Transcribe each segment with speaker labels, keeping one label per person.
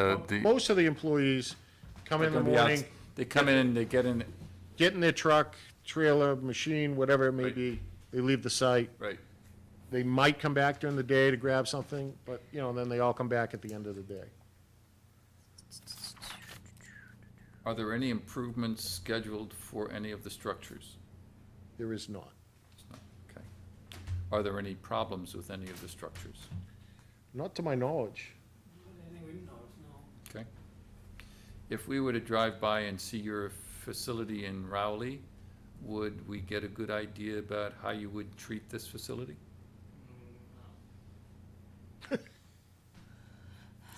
Speaker 1: Uh, the,
Speaker 2: Most of the employees come in
Speaker 3: They're
Speaker 2: the
Speaker 3: gonna be out-
Speaker 2: morning,
Speaker 3: They come in and they get in,
Speaker 2: get in their truck, trailer, machine, whatever it may
Speaker 1: Right.
Speaker 2: be. They leave the site.
Speaker 1: right,
Speaker 2: They might come back during the day to grab something, but, you know, then they all come back at the end of the day.
Speaker 1: are there any improvements scheduled for any of the structures?
Speaker 2: There is not.
Speaker 1: Okay. Are there any problems with any of the structures?
Speaker 2: Not to my knowledge.
Speaker 1: Okay. If we were to drive by and see your facility in Rowley, would we get a good idea about how you would treat this facility?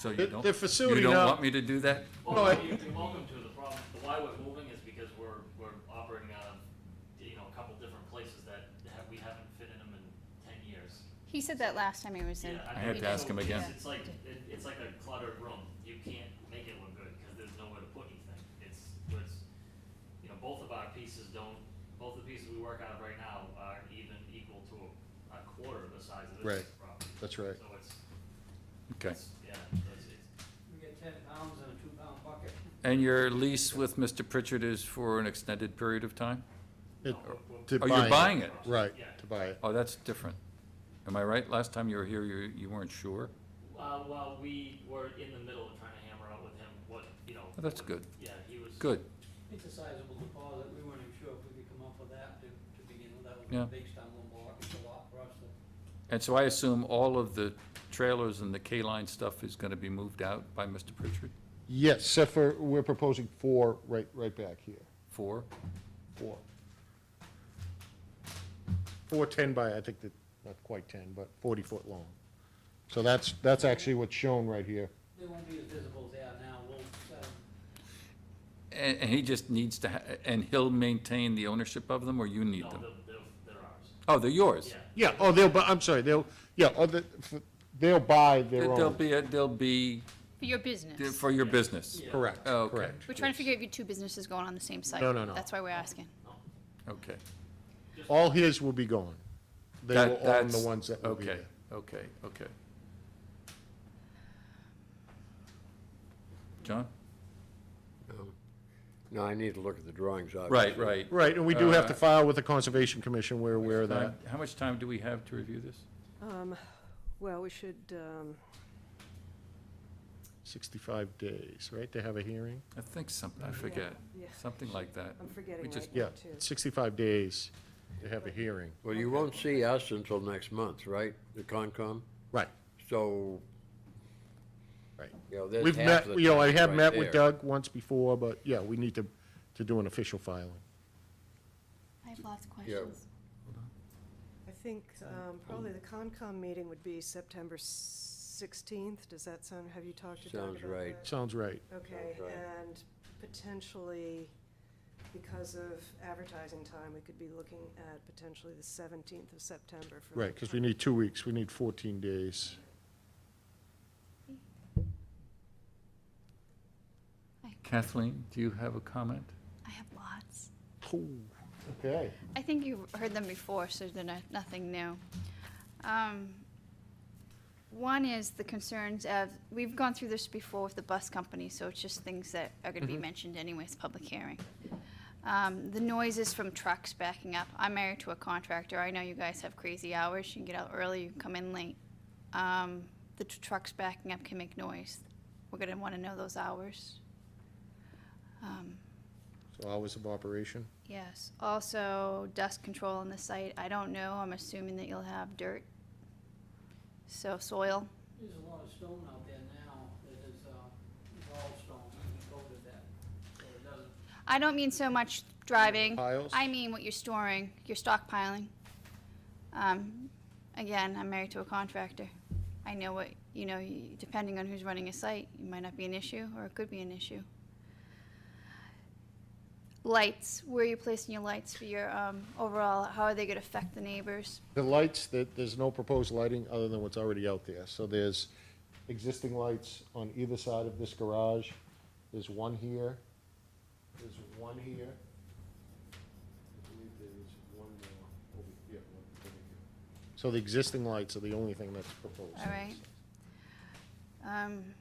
Speaker 1: So you
Speaker 2: Mm, The-
Speaker 1: don't,
Speaker 2: the
Speaker 1: you
Speaker 2: facility
Speaker 1: don't
Speaker 2: now-
Speaker 1: want me to do that?
Speaker 2: No,
Speaker 4: Well,
Speaker 2: I-
Speaker 4: you're you're welcome to, the problem, the why we're moving is because we're, we're operating out of, you know, a couple different places that ha- we haven't fit in them in ten years.
Speaker 5: He said that last time he was in.
Speaker 4: Yeah,
Speaker 1: I had
Speaker 4: mean,
Speaker 1: to ask him
Speaker 4: it's-
Speaker 1: again.
Speaker 4: It's like, it- it's like a cluttered room, you can't make it look good, cause there's nowhere to put anything, it's, it's, you know, both of our pieces don't, both the pieces we work out of right now are even equal to a, a quarter of the size of this
Speaker 2: Right.
Speaker 4: property.
Speaker 2: That's right.
Speaker 4: So it's,
Speaker 1: Okay.
Speaker 4: it's, yeah, it's, it's,
Speaker 6: We get ten pounds in a two-pound bucket.
Speaker 1: And your lease with Mr. Pritchard is for an extended period of time?
Speaker 2: It-
Speaker 4: no, we're- we're-
Speaker 2: to
Speaker 1: Oh, you're buying it?
Speaker 2: Right,
Speaker 4: Yeah.
Speaker 2: to buy it.
Speaker 1: Oh, that's different. Am I right? Last time you were here, you, you weren't sure?
Speaker 4: Uh, well, we were in the middle of trying to hammer out with him what, you know.
Speaker 1: Oh, That's
Speaker 4: what-
Speaker 1: good,
Speaker 4: Yeah, he was.
Speaker 1: good.
Speaker 6: It's a sizable deposit, we weren't even sure if we could come up with that to, to begin with, that
Speaker 1: Yeah.
Speaker 6: was based on one block, it's a lot for us to.
Speaker 1: And so I assume all of the trailers and the K-line stuff is gonna be moved out by Mr. Pritchard?
Speaker 2: Yes, except for, we're proposing four right, right back here.
Speaker 1: Four?
Speaker 2: Four. Four ten by, I think that, not quite ten, but forty foot long. So that's, that's actually what's shown right here.
Speaker 6: They won't be as visible as they are now, we'll, uh,
Speaker 1: And, and he just needs to, ha- and he'll maintain the ownership of them, or you need
Speaker 4: No,
Speaker 1: them?
Speaker 4: they're, they're, they're ours.
Speaker 1: Oh, they're yours?
Speaker 4: Yeah,
Speaker 2: Yeah, oh, they'll, bu- I'm sorry, they'll, yeah, oh, the- f- they'll buy their
Speaker 1: They'll
Speaker 2: own.
Speaker 1: be, a- they'll be
Speaker 5: For your
Speaker 1: they're
Speaker 5: business.
Speaker 1: for your business?
Speaker 6: Yeah.
Speaker 2: Correct,
Speaker 1: Oh, okay.
Speaker 2: correct.
Speaker 5: We're trying to figure out if you two businesses going on the same site.
Speaker 2: No, no, no.
Speaker 5: That's why we're asking.
Speaker 1: Okay.
Speaker 2: All his will be gone. They
Speaker 1: That-
Speaker 2: will own the
Speaker 1: that's-
Speaker 2: ones that will be
Speaker 1: okay,
Speaker 2: there.
Speaker 1: Okay, okay. John?
Speaker 7: No, I need to look at the drawings, obviously.
Speaker 1: Right, right.
Speaker 2: Right, and we do have to
Speaker 1: Uh,
Speaker 2: file with the Conservation Commission, we're aware of
Speaker 1: Uh,
Speaker 2: that.
Speaker 1: How much time do we have to review this?
Speaker 8: Um, Well, we should, um,
Speaker 2: Sixty-five days, right, to have a hearing?
Speaker 1: I think something, I forget,
Speaker 8: yeah. Um,
Speaker 1: something like that.
Speaker 8: I'm forgetting
Speaker 1: We just-
Speaker 8: right
Speaker 2: Yeah,
Speaker 8: now, too.
Speaker 2: sixty-five days to have a hearing.
Speaker 7: Well, you won't see us until next month, right? The Concom?
Speaker 2: Right,
Speaker 7: So,
Speaker 2: right.
Speaker 7: you know, there's
Speaker 2: We've
Speaker 7: half
Speaker 2: met,
Speaker 7: of the
Speaker 2: you know, I
Speaker 7: time
Speaker 2: have
Speaker 7: right
Speaker 2: met with
Speaker 7: there.
Speaker 2: Doug once before, but yeah, we need to, to do an official filing.
Speaker 5: I have lots of
Speaker 7: questions.
Speaker 8: I think um, probably the Concom meeting would be September 16th. Does that sound, have you talked to Doug
Speaker 7: Sounds
Speaker 8: about
Speaker 7: right.
Speaker 8: that?
Speaker 2: Sounds right.
Speaker 8: Okay,
Speaker 7: Sounds right.
Speaker 8: and potentially, because of advertising time, we could be looking at potentially the 17th of September for. the
Speaker 2: Right, because we need two weeks, we need 14 days.
Speaker 1: Kathleen, do you have a comment?
Speaker 5: I have lots.
Speaker 2: Okay.
Speaker 5: I think you heard them before, so they're not, nothing new. Um, one is the concerns of, we've gone through this before with the bus company, so it's just things that are gonna be mentioned anyways, public hearing. Um, the noises from trucks backing up. I'm married to a contractor. I know you guys have crazy hours. You can get out early, you can come in late. Um, the tr- trucks backing up can make noise. We're gonna wanna know those hours. Um,
Speaker 2: So hours of operation?
Speaker 5: Yes, also dust control on the site, I don't know, I'm assuming that you'll have dirt. So soil,
Speaker 6: there's a lot of stone out there now, that is, uh, it's all stone, we coated that, so it doesn't.
Speaker 5: I don't mean so much driving.
Speaker 2: Piles?
Speaker 5: Mm-hmm. I mean what you're storing, you're stockpiling. Um, again, I'm married to a contractor. I know what, you know, y- depending on who's running a site, it might not be an issue, or it could be an issue. Lights, where are you placing your lights for your, um, overall, how are they gonna affect the neighbors?
Speaker 2: The lights, that, there's no proposed lighting other than what's already out there. So there's existing lights on either side of this garage. There's one here, there's one here. I believe there's one more over here, one over here. So the existing lights are the only thing that's proposed.
Speaker 5: All right. Um,